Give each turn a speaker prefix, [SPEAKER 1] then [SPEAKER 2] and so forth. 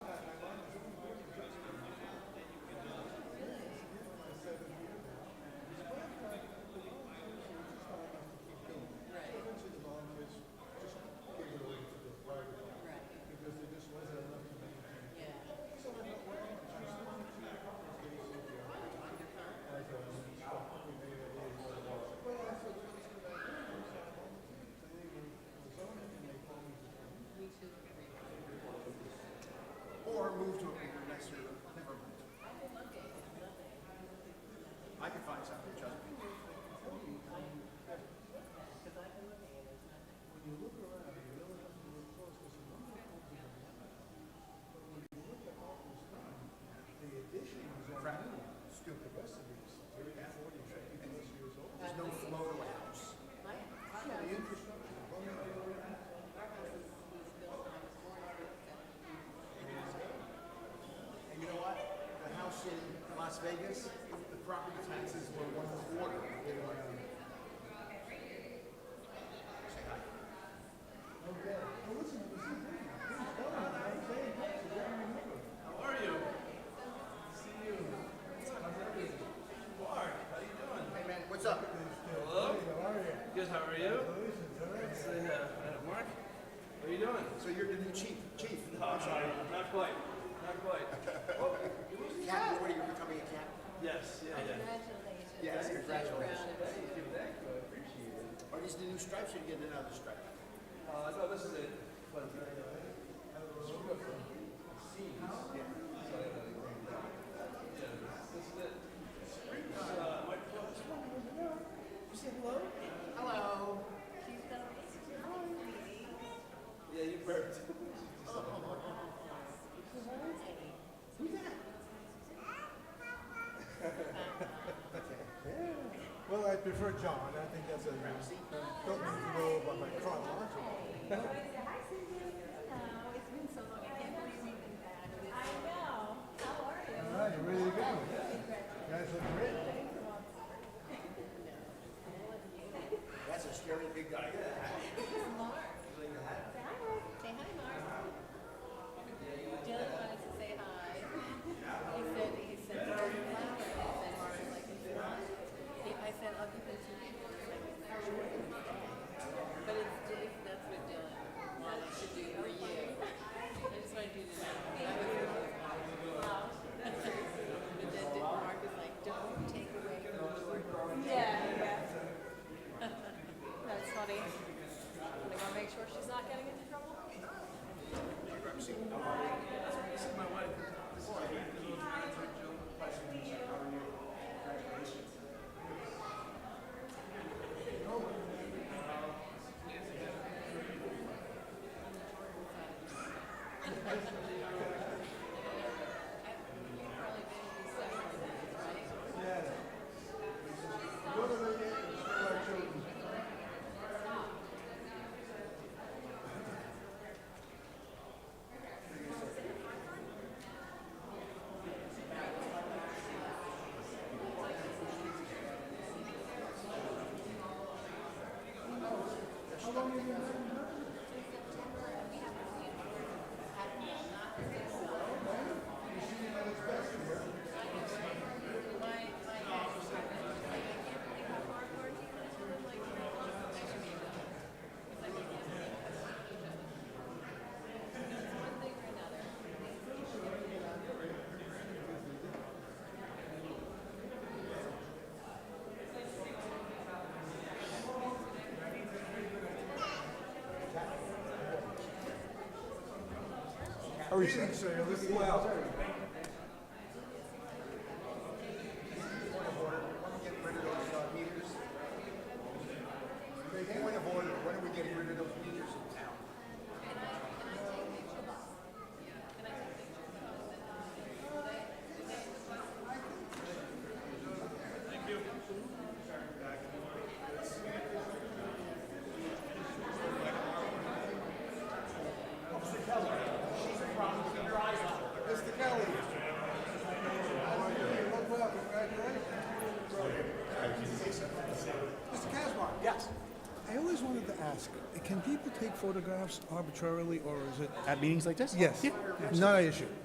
[SPEAKER 1] nicer, never mind. I can find something, trust me. Crap. Stupid. There's no flow to a house. And you know what? The house in Las Vegas, the property taxes were one quarter of what they were in. Say hi.
[SPEAKER 2] How are you? See you. Mark, how you doing?
[SPEAKER 1] Hey man, what's up?
[SPEAKER 2] Hello? Good, how are you? Say, uh, uh, Mark, how you doing?
[SPEAKER 1] So you're the new chief, chief.
[SPEAKER 2] not quite, not quite. Oh, you losing your
[SPEAKER 1] Captain,
[SPEAKER 2] hat?
[SPEAKER 1] what are you becoming a captain?
[SPEAKER 2] Yes, yeah, yeah.
[SPEAKER 3] Congratulations.
[SPEAKER 1] Yes, congratulations.
[SPEAKER 2] Thank you, thank you, I appreciate it.
[SPEAKER 1] Are these the new stripes or you getting another stripe?
[SPEAKER 2] Uh, no, this is it. But, uh, it's from scenes. So, uh, yeah, this is it. Uh, my, just wondering, you know, you say hello?
[SPEAKER 1] Hello.
[SPEAKER 3] She's gonna
[SPEAKER 2] Yeah, you burped.
[SPEAKER 1] Who's that?
[SPEAKER 4] Well, I prefer John. I think that's a
[SPEAKER 1] Ramsey?
[SPEAKER 4] Don't need to go by my chronological.
[SPEAKER 3] Hi, Cindy. Hello. It's been so long. I can't believe you've been back. I know. How are you?
[SPEAKER 4] All right, you're ready to go. You guys look great.
[SPEAKER 1] That's a scary big guy.
[SPEAKER 3] Say hi, Mark. Say hi, Mark. Dylan wanted to say hi. He said, he said, "Mark, flower." I said, Mark, like, if you want. He- I said, I'll give it to you. But it's, Dave, that's what Dylan wanted to do for you. I just wanted you to know. I was really proud. But then did- Mark was like, don't take away from Yeah, yeah. That's funny. I'm gonna go make sure she's not getting into trouble.
[SPEAKER 1] Ramsey.
[SPEAKER 2] This is my wife. This is my little daughter, Jill.
[SPEAKER 4] Yeah. Go to the gate and show our children. How are you? So you're looking well.
[SPEAKER 1] Point of order. When we get rid of those uh, meters? Point of order. When are we getting rid of those meters in town?
[SPEAKER 4] Mr. Kelly. How are you? You look well. Congratulations. Mr. Casbar.
[SPEAKER 1] Yes.
[SPEAKER 5] I always wanted to ask, can people take photographs arbitrarily or is it?
[SPEAKER 6] At meetings like this?
[SPEAKER 5] Yes,
[SPEAKER 6] Yeah.
[SPEAKER 5] not an issue.